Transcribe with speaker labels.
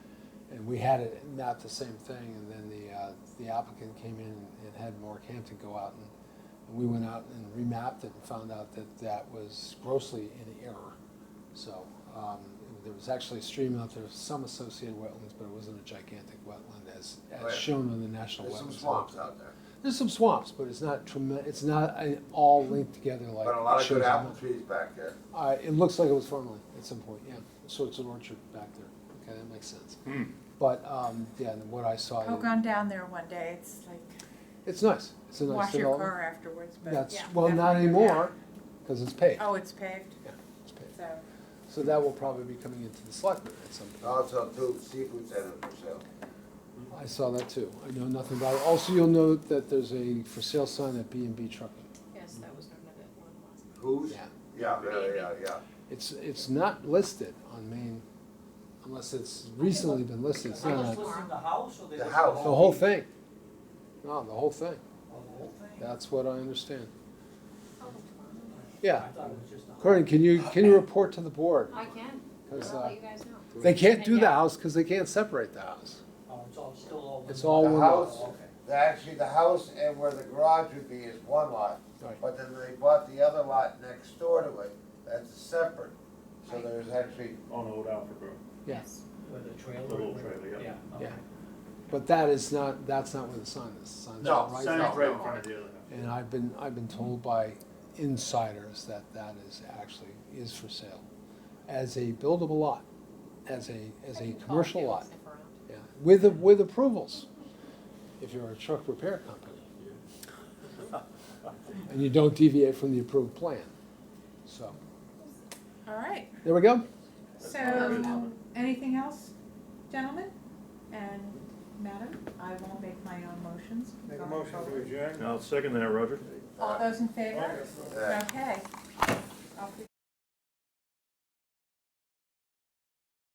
Speaker 1: and we had it not the same thing, and then the, uh, the applicant came in and had Northampton go out and, and we went out and remapped it and found out that that was grossly in error. So, um, there was actually a stream out there, some associated wetlands, but it wasn't a gigantic wetland as,
Speaker 2: Right.
Speaker 1: as shown on the National Wetlands.
Speaker 2: There's some
Speaker 1: Map.
Speaker 2: swamps out there,
Speaker 1: There's some swamps, but it's not tremen, it's not uh, all linked together like.
Speaker 2: but a lot
Speaker 1: it
Speaker 2: of
Speaker 1: shows
Speaker 2: good
Speaker 1: on
Speaker 2: apple
Speaker 1: the-
Speaker 2: trees back there.
Speaker 1: Uh, it looks like it was formerly at some point, yeah. So it's an orchard back there. Okay, that makes sense. But, um, yeah, and what I saw,
Speaker 3: I've gone down there one day, it's like,
Speaker 1: it's nice. It's a nice
Speaker 3: wash your
Speaker 1: development.
Speaker 3: car afterwards, but.
Speaker 1: That's,
Speaker 3: yeah,
Speaker 1: well, not
Speaker 3: definitely.
Speaker 1: anymore, because it's paved.
Speaker 3: Oh, it's paved,
Speaker 1: Yeah, it's paved.
Speaker 3: so,
Speaker 1: So that will probably be coming into the select board at some point.
Speaker 2: Also, two seafood centers for sale.
Speaker 1: I saw that too. I know nothing about it. Also, you'll note that there's a for sale sign at B and B Trucking.
Speaker 4: Yes, that was noted at one last night.
Speaker 2: Who's?
Speaker 1: Yeah.
Speaker 2: Yeah, yeah, yeah, yeah.
Speaker 1: It's, it's not listed on Main, unless it's recently been listed. It's
Speaker 5: They
Speaker 1: not
Speaker 5: just
Speaker 1: on-
Speaker 5: listed the house or they
Speaker 2: The
Speaker 5: listed
Speaker 2: house.
Speaker 1: The whole thing. No, the whole thing.
Speaker 5: Oh, the whole thing?
Speaker 1: That's what I understand.
Speaker 5: I
Speaker 1: Yeah.
Speaker 5: thought it was just the house.
Speaker 1: Corinne, can you, can you report to the board?
Speaker 4: Oh, I can,
Speaker 1: 'Cause,
Speaker 4: I'll
Speaker 1: uh,
Speaker 4: let you guys know.
Speaker 1: They can't do the
Speaker 4: Yeah.
Speaker 1: house because they can't separate the house.
Speaker 5: Oh, it's all, still all.
Speaker 1: It's
Speaker 5: one
Speaker 1: all
Speaker 2: The
Speaker 5: lot.
Speaker 1: one
Speaker 2: house,
Speaker 1: lot.
Speaker 5: Oh, okay.
Speaker 2: the- actually, the house and where the garage would be is one lot,
Speaker 1: Right.
Speaker 2: but then they bought the other lot next door to it, that's separate. So
Speaker 4: Right.
Speaker 2: there's actually,
Speaker 6: On Old Alfred Road.
Speaker 1: Yeah.
Speaker 4: Yes.
Speaker 5: With a trailer.
Speaker 6: The little
Speaker 5: with-
Speaker 6: trailer, yeah.
Speaker 5: okay.
Speaker 1: Yeah. But that is not, that's not where the sign is. The sign's
Speaker 2: No,
Speaker 1: right
Speaker 6: Sign
Speaker 2: now.
Speaker 6: is
Speaker 1: there.
Speaker 6: right in front of the other house.
Speaker 1: And I've been, I've been told by insiders that that is actually, is for sale. As a buildable lot, as a, as
Speaker 4: I
Speaker 1: a
Speaker 4: can call
Speaker 1: commercial
Speaker 4: Jim
Speaker 1: lot.
Speaker 4: if around.
Speaker 1: Yeah, with, with approvals, if you're a truck repair company. And you don't deviate from the approved plan. So,
Speaker 3: all right,
Speaker 1: there we go.
Speaker 3: so, anything else, gentlemen? And madam, I will make my own motions.
Speaker 7: Make a
Speaker 3: going
Speaker 7: motion to
Speaker 3: forward.
Speaker 7: adjourn?
Speaker 6: I'll second that, Roger.
Speaker 3: All those in favor?
Speaker 2: uh,
Speaker 3: Okay. Off we